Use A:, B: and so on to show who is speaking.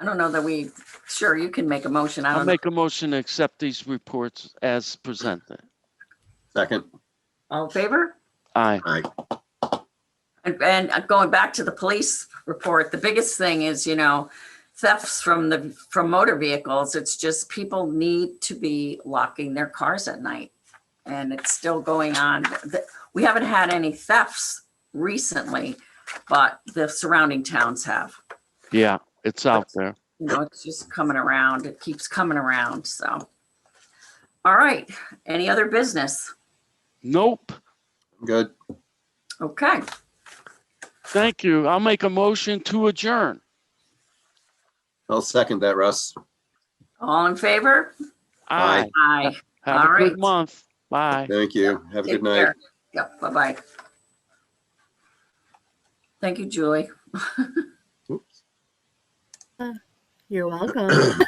A: I don't know that we, sure, you can make a motion. I
B: I'll
A: don't know.
B: make a motion to accept these reports as presented.
C: Second,
A: All in favor?
B: Aye.
C: aye.
A: And, and going back to the police report, the biggest thing is, you know, thefts from the, from motor vehicles. It's just people need to be locking their cars at night. And it's still going on. The- We haven't had any thefts recently, but the surrounding towns have.
B: Yeah, it's out there.
A: You know, it's just coming around. It keeps coming around, so. All right, any other business?
B: Nope.
C: Good.
A: Okay,
B: Thank you. I'll make a motion to adjourn.
C: I'll second that, Russ.
A: all in favor?
B: Aye.
A: Aye.
B: Have
A: All
B: a
A: right.
B: good month. Bye.
C: Thank you. Have a
A: Take
C: good night.
A: care. Yep, bye-bye. Thank you, Julie.
C: Oops.
D: You're welcome.